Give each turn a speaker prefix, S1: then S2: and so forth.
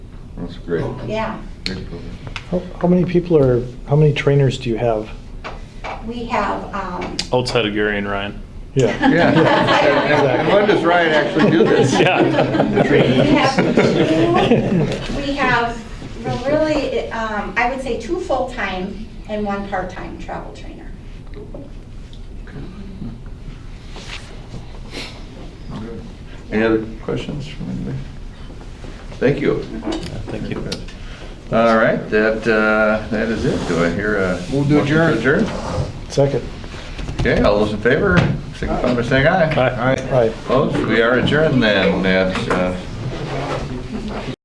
S1: That's great.
S2: Yeah,
S1: Great program.
S3: How how many people are, how many trainers do you have?
S2: we have, um,
S4: outside of Gary and Ryan.
S3: Yeah.
S1: Yeah. And- And when does Ryan actually do this?
S4: Yeah.
S2: We have two- we have really, um, I would say two full-time and one part-time travel trainer.
S1: Good. Any other questions from anybody? Thank you.
S4: Thank you.
S1: All right, that, uh, that is it. Do I hear a?
S5: Move to
S1: motion
S5: adjourn.
S3: Second.
S1: Okay, all those in favor, signify by saying aye.
S4: Aye.
S3: Right.
S1: Opposed? We are adjourned then at uh,